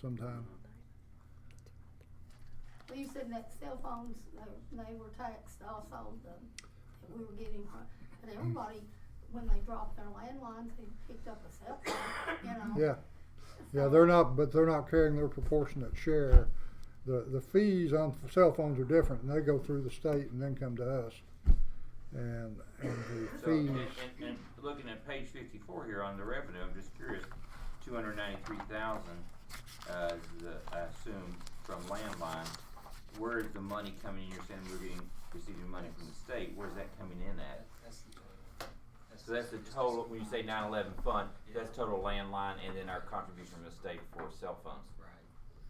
sometime. Well, you said that cell phones, they, they were taxed also, the, that we were getting, from- but everybody, when they dropped their landlines, they picked up a cell phone, you know? Yeah, yeah, they're not, but they're not carrying their proportionate share. The, the fees on cell phones are different, and they go through the state and then come to us. And, and the So, and, and, fees, and looking at page fifty-four here on the revenue, I'm just curious, two hundred ninety-three thousand, uh, the, I assume from landline. Where is the money coming in? You're saying we're getting, receiving money from the state. Where's that coming in at? That's the total. So that's the total, when you say nine eleven fund, that's total landline and then our contribution from the state for cell phones. Right.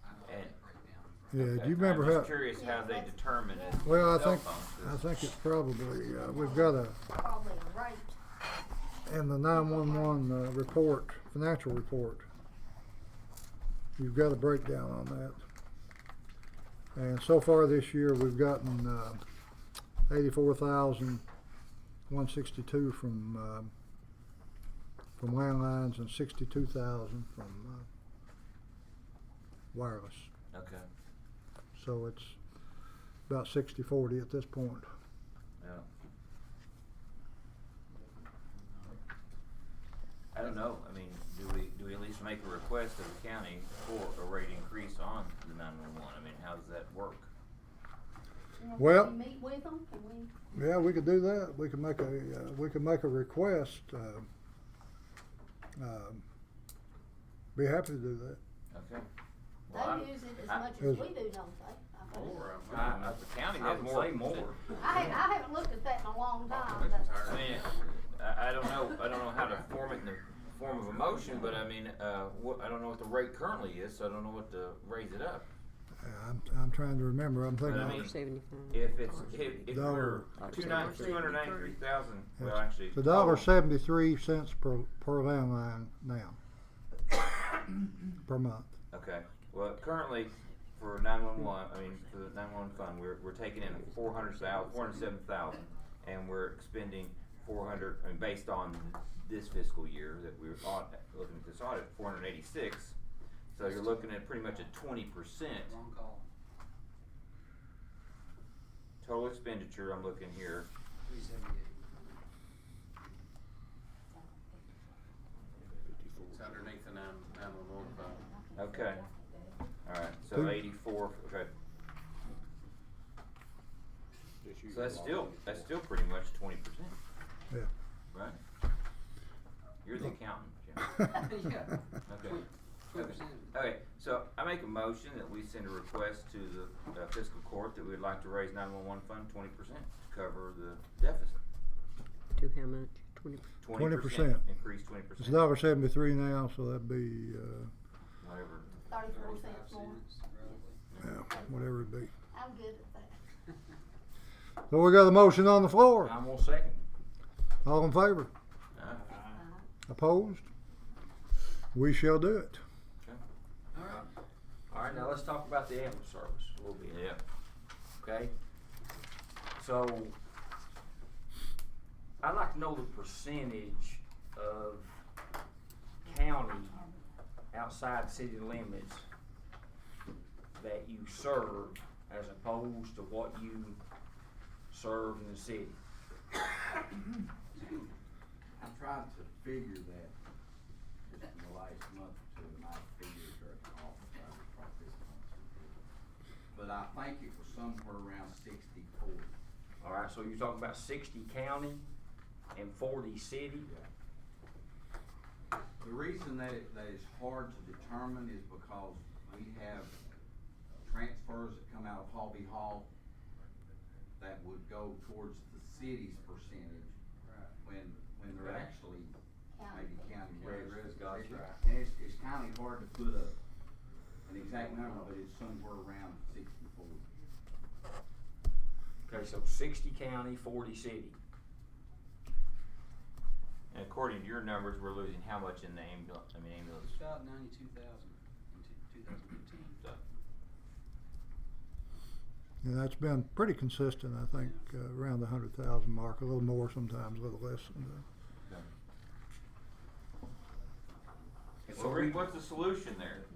I don't have that And- breakdown. yeah, do Okay, you remember I'm how? just curious how they determine it. Well, I cell think, phones, I 'cause- think it's probably, uh, we've got a, Probably a rate, in the nine-one-one, uh, report, financial report, you've got a breakdown on that. And so far this year, we've gotten, uh, eighty-four thousand, one sixty-two from, um, from landlines and sixty-two thousand from, uh, wireless. Okay, So it's about sixty-forty at this point. yeah. I don't know, I mean, do we, do we at least make a request of the county for a rate increase on the nine-one-one? I mean, how does that work? you know, Well- can we meet with them, can we? Yeah, we could do that. We could make a, uh, we could make a request. um, um, Be happy to do that. Okay. Well, I'm- They use it as I- much Is- as we do, don't they? I think. More, I'm- I- I- the county I has would more say than- more. I, ha- I haven't looked at that in a long time, Population's but. higher. I mean, I, I don't know, I don't know how to form it in the form of a motion, but I mean, uh, wha- I don't know what the rate currently is, so I don't know what to raise it up. Uh, I'm, I'm trying to remember. I'm But thinking, I of- mean, Dollar seventy-five. if it's, if, if we're Dollar. two nine, two hundred ninety-three thousand, well, Yeah. actually. it's a dollar oh, seventy-three cents per, per landline now. Per month. Okay, well, currently, for nine-one-one, I mean, for the nine-one-one fund, we're, we're taking in four hundred thousand, four hundred seven thousand, and we're expending four hundred, I mean, based on this fiscal year that we're audit, looking at this audit, four hundred eighty-six. So you're looking at pretty much a twenty percent Wrong call. total expenditure, I'm looking here, Three seventy-eight. It's underneath the nine, nine one one phone. okay, alright, Who- so eighty-four, okay. So that's still, that's still pretty much twenty percent, Yeah. right? You're the accountant, Jim. Yeah. Okay. Twenty percent. Okay, so I make a motion that we send a request to the uh, fiscal court that we'd like to raise nine-one-one fund twenty percent to cover the deficit. To how much? Twenty percent. 20%. Increase twenty percent. It's a dollar seventy-three now, so that'd be, uh, Whatever. Thirty-four Thirty-five cents more, cents, roughly. yeah, whatever it'd be. I'm good at that. So we got a motion on the floor. I'm gonna second. All in favor? Uh, Opposed? We shall do it. All right, now let's talk about the ambulance service a little bit. Yeah, Okay? So, I'd like to know the percentage of county outside city limits that you serve as opposed to what you serve in the city. I tried to figure that just in the last month or two, and I figured it off, so I was probably this month's report. But I think it was somewhere around sixty-four. All right, so you're talking about sixty county and forty city? The reason that it, that it's hard to determine is because we have transfers that come out of Hobby Hall that would go towards the city's percentage when, when they're Right. actually Yeah. maybe county County roads. roads, got you. And it's, it's kinda hard to put a, an exact number, but it's somewhere around sixty-four. Okay, so sixty county, forty city. and according to your numbers, we're losing how much in the ambulance, I mean ambulance? It's about ninety-two thousand in two thousand fifteen. So, And that's been pretty consistent, I think, uh, around the hundred thousand mark, a little more sometimes, a little less. sometimes. so Rick, what's the solution there? Uh,